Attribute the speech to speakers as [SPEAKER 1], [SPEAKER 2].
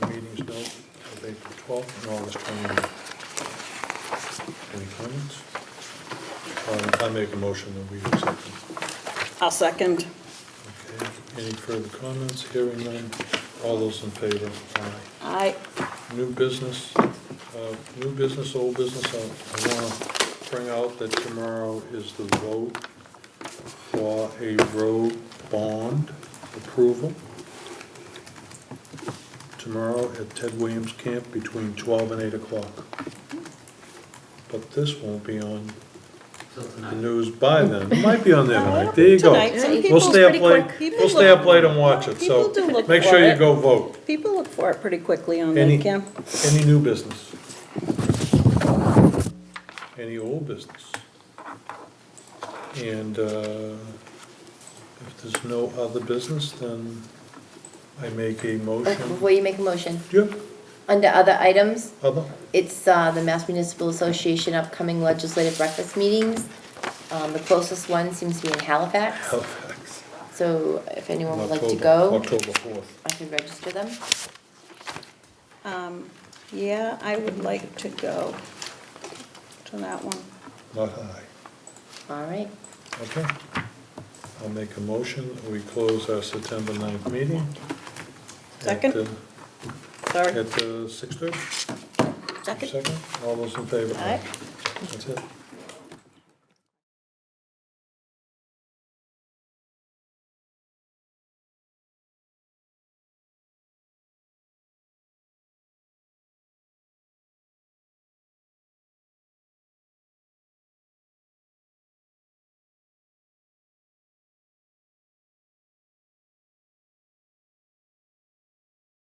[SPEAKER 1] Bill of April twelfth and August twenty-eighth. Any comments? Um, I make a motion that we accept them.
[SPEAKER 2] I'll second.
[SPEAKER 1] Okay, any further comments? Hearing none. All those in favor? Aye.
[SPEAKER 2] I,
[SPEAKER 1] New business, uh, new business, old business, I I wanna bring out that tomorrow is the vote for a road bond approval. Tomorrow at Ted Williams Camp between twelve and eight o'clock. But this won't be on
[SPEAKER 3] till
[SPEAKER 1] the
[SPEAKER 3] tonight.
[SPEAKER 1] news by then, it might be on there tonight, there you go.
[SPEAKER 2] Tonight, so you
[SPEAKER 1] We'll
[SPEAKER 2] can-
[SPEAKER 1] stay up
[SPEAKER 4] People's
[SPEAKER 1] late,
[SPEAKER 4] pretty
[SPEAKER 2] quick.
[SPEAKER 1] we'll stay up late and watch it, so
[SPEAKER 2] People do look
[SPEAKER 1] make
[SPEAKER 2] for
[SPEAKER 1] sure you
[SPEAKER 2] it.
[SPEAKER 1] go vote.
[SPEAKER 2] people look for it pretty quickly on
[SPEAKER 1] Any,
[SPEAKER 2] that, Kim.
[SPEAKER 1] any new business? Any old business? And uh, if there's no other business, then I make a
[SPEAKER 4] Okay,
[SPEAKER 1] motion.
[SPEAKER 4] Before you make a motion,
[SPEAKER 1] Do you have
[SPEAKER 4] under other items,
[SPEAKER 1] other?
[SPEAKER 4] it's uh, the Mass Municipal Association upcoming legislative breakfast meetings. Um, The closest one seems to be in Halifax,
[SPEAKER 1] Halifax.
[SPEAKER 4] so if anyone would like to
[SPEAKER 1] Oh. October-
[SPEAKER 4] go,
[SPEAKER 1] October 4th.
[SPEAKER 4] I can register them.
[SPEAKER 2] Um, Yeah, I would like to go to that one.
[SPEAKER 1] Not high.
[SPEAKER 4] All right,
[SPEAKER 1] Okay. I'll make a motion. We close our September 9th meeting. at,
[SPEAKER 2] Second.
[SPEAKER 1] uh,
[SPEAKER 2] Sorry.
[SPEAKER 1] At uh, 6:30?
[SPEAKER 2] Second?
[SPEAKER 1] All those in favor?
[SPEAKER 4] Aye.
[SPEAKER 1] That's it.